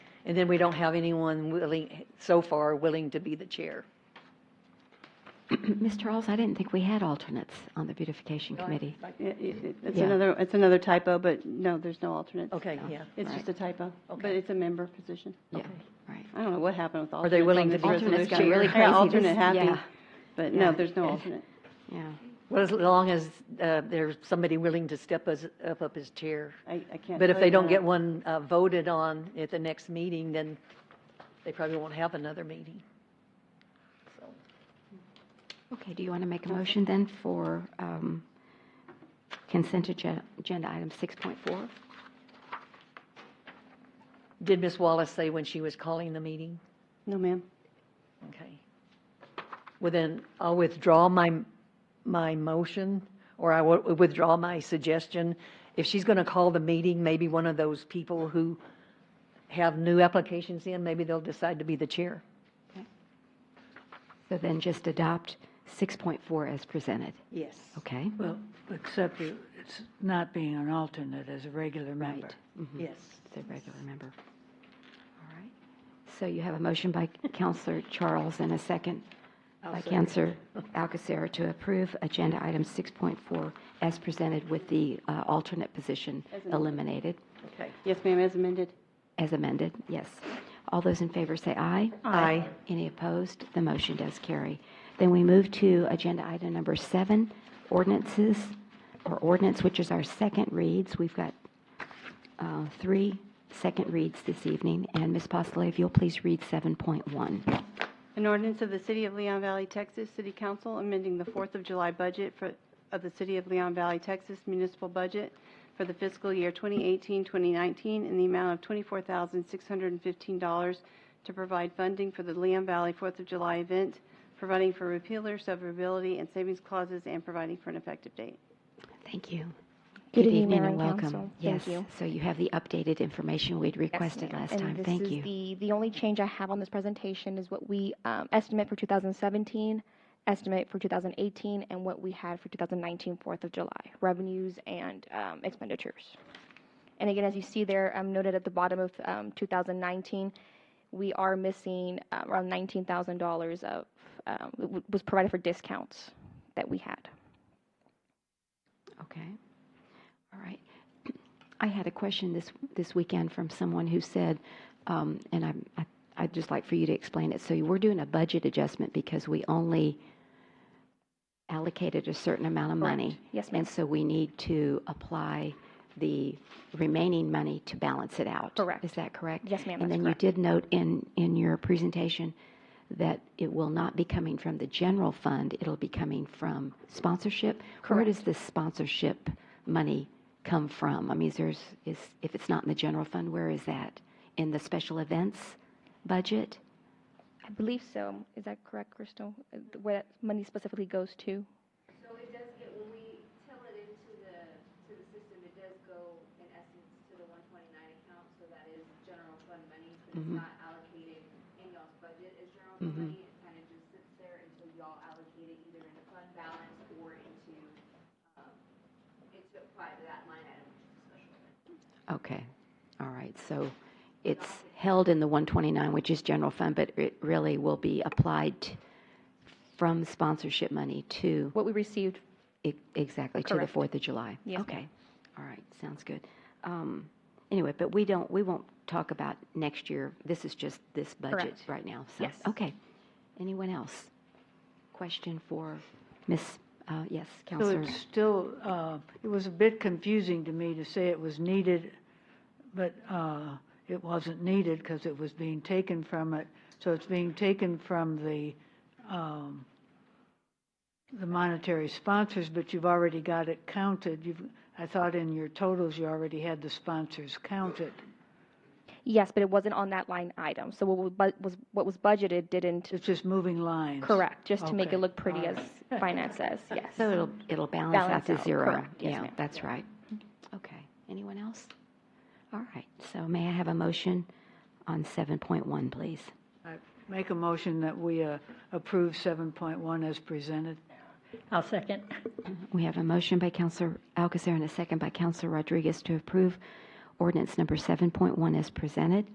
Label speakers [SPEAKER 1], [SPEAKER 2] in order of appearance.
[SPEAKER 1] And then we don't have anyone willing, so far, willing to be the chair.
[SPEAKER 2] Ms. Charles, I didn't think we had alternates on the beautification committee.
[SPEAKER 3] It- it- It's
[SPEAKER 2] Yeah. Oh,
[SPEAKER 3] another, it's another typo, but no, there's no alternate.
[SPEAKER 1] Okay, yeah.
[SPEAKER 3] It's just a typo, but
[SPEAKER 1] Okay.
[SPEAKER 3] it's a member position.
[SPEAKER 2] Yeah,
[SPEAKER 1] Okay.
[SPEAKER 2] right.
[SPEAKER 3] I don't know what happened with alternates.
[SPEAKER 1] they willing
[SPEAKER 3] on
[SPEAKER 1] to
[SPEAKER 3] this
[SPEAKER 1] be the
[SPEAKER 3] resolution.
[SPEAKER 2] Alternates got really
[SPEAKER 3] Yeah,
[SPEAKER 2] crazy this-
[SPEAKER 3] alternate happy,
[SPEAKER 2] yeah.
[SPEAKER 3] but no,
[SPEAKER 2] Yeah.
[SPEAKER 3] there's no alternate.
[SPEAKER 2] Yeah.
[SPEAKER 1] Well, as long as uh, there's somebody willing to step us, up, up as chair.
[SPEAKER 3] I, I can't.
[SPEAKER 1] But if
[SPEAKER 3] tell
[SPEAKER 1] they
[SPEAKER 3] you
[SPEAKER 1] don't
[SPEAKER 3] that.
[SPEAKER 1] get one uh, voted on at the next meeting, then they probably won't have another meeting. So,
[SPEAKER 2] Okay, do you want to make a motion then for um, consent agen- agenda item 6.4?
[SPEAKER 1] Did Ms. Wallace say when she was calling the meeting?
[SPEAKER 3] No, ma'am.
[SPEAKER 1] Okay. Well, then, I'll withdraw my, my motion, or I will withdraw my suggestion. If she's going to call the meeting, maybe one of those people who have new applications in, maybe they'll decide to be the chair.
[SPEAKER 2] So then just adopt 6.4 as presented,
[SPEAKER 1] Yes.
[SPEAKER 2] okay?
[SPEAKER 4] Well, except you- it's not being an alternate as a regular member.
[SPEAKER 2] Right.
[SPEAKER 1] Yes.
[SPEAKER 2] It's a regular member. All right. So you have a motion by Counselor Charles and a second by Counselor Alcacer to approve Agenda Item 6.4 as presented with the uh, alternate position eliminated,
[SPEAKER 1] Okay.
[SPEAKER 3] Yes, ma'am, as amended.
[SPEAKER 2] as amended, yes. All those in favor say aye.
[SPEAKER 1] Aye.
[SPEAKER 2] Any opposed? The motion does carry. Then we move to Agenda Item Number 7, ordinances, or ordinance, which is our second reads. We've got uh, three second reads this evening, and Ms. Postlev, if you'll please read 7.1.
[SPEAKER 3] An ordinance of the City of Leon Valley, Texas, City Council amending the Fourth of July budget for, of the City of Leon Valley, Texas municipal budget for the fiscal year 2018, 2019 in the amount of $24,615 to provide funding for the Leon Valley Fourth of July event, providing for repealer, severability, and savings clauses, and providing for an effective date.
[SPEAKER 2] Thank you.
[SPEAKER 5] Good evening, Mayor
[SPEAKER 2] and
[SPEAKER 5] and
[SPEAKER 2] welcome.
[SPEAKER 5] Council.
[SPEAKER 2] Yes,
[SPEAKER 5] Thank you.
[SPEAKER 2] so you have the updated information we'd requested
[SPEAKER 5] ma'am.
[SPEAKER 2] last
[SPEAKER 5] And
[SPEAKER 2] time. Thank
[SPEAKER 5] This is
[SPEAKER 2] you.
[SPEAKER 5] the, the only change I have on this presentation is what we um, estimate for 2017, estimate for 2018, and what we had for 2019, 4th of July, revenues and um, expenditures. And again, as you see there, um, noted at the bottom of um, 2019, we are missing uh, around $19,000 of, um, w- was provided for discounts that we had.
[SPEAKER 2] Okay. All right. I had a question this, this weekend from someone who said, um, and I'm, I, I'd just like for you to explain it. So we're doing a budget adjustment because we only allocated a certain amount of money.
[SPEAKER 5] Yes, ma'am.
[SPEAKER 2] And so we need to apply the remaining money to balance it out.
[SPEAKER 5] Correct.
[SPEAKER 2] Is that correct?
[SPEAKER 5] Yes,
[SPEAKER 2] And
[SPEAKER 5] ma'am, that's
[SPEAKER 2] then you
[SPEAKER 5] correct.
[SPEAKER 2] did note in, in your presentation that it will not be coming from the general fund, it'll be coming from sponsorship. Where does this sponsorship money come from? I mean, is there's, is, if it's not in the general fund, where is that? In the special events budget?
[SPEAKER 5] I believe so. Is that correct, Crystal? Uh, th- Where that money specifically goes to?
[SPEAKER 6] So it does get, when we tell it into the, to the system, it does go in essence to the one twenty-nine account, so that is general fund money, but it's not allocated in y'all's budget as general fund money. It kind of just sits there until y'all allocate it either into fund balance or into, um, into apply to that line item, which is a special event.
[SPEAKER 2] Okay, all right, so it's held in the 129, which is general fund, but it really will be applied t- from sponsorship money to,
[SPEAKER 5] What we received
[SPEAKER 2] e- exactly, to the
[SPEAKER 5] Correct.
[SPEAKER 2] 4th of July?
[SPEAKER 5] Yes, ma'am.
[SPEAKER 2] Okay, all right, sounds good. Um, Anyway, but we don't, we won't talk about next year, this is just this budget
[SPEAKER 5] Correct.
[SPEAKER 2] right now. so-
[SPEAKER 5] Yes.
[SPEAKER 2] Okay, anyone else? Question for Ms., uh, yes,
[SPEAKER 4] So
[SPEAKER 2] Counselor?
[SPEAKER 4] it's still, uh, it was a bit confusing to me to say it was needed, but uh, it wasn't needed because it was being taken from it. So it's being taken from the, um, the monetary sponsors, but you've already got it counted. You've, I thought in your totals, you already had the sponsors counted.
[SPEAKER 5] Yes, but it wasn't on that line item. So what was bu- was, what was budgeted didn't,
[SPEAKER 4] It's just moving lines.
[SPEAKER 5] correct, just to make
[SPEAKER 4] Okay,
[SPEAKER 5] it look pretty
[SPEAKER 4] all
[SPEAKER 5] as finance says, yes.
[SPEAKER 2] So it'll, it'll balance out
[SPEAKER 5] Balance
[SPEAKER 2] to
[SPEAKER 5] out,
[SPEAKER 2] zero.
[SPEAKER 5] correct. Yes,
[SPEAKER 2] Yeah,
[SPEAKER 5] ma'am.
[SPEAKER 2] that's right. Okay. Anyone else? All right. So may I have a motion on 7.1, please?
[SPEAKER 4] I Make a motion that we uh, approve 7.1 as presented.
[SPEAKER 7] I'll second.
[SPEAKER 2] We have a motion by Counselor Alcacer and a second by Counselor Rodriguez to approve ordinance number 7.1 as presented.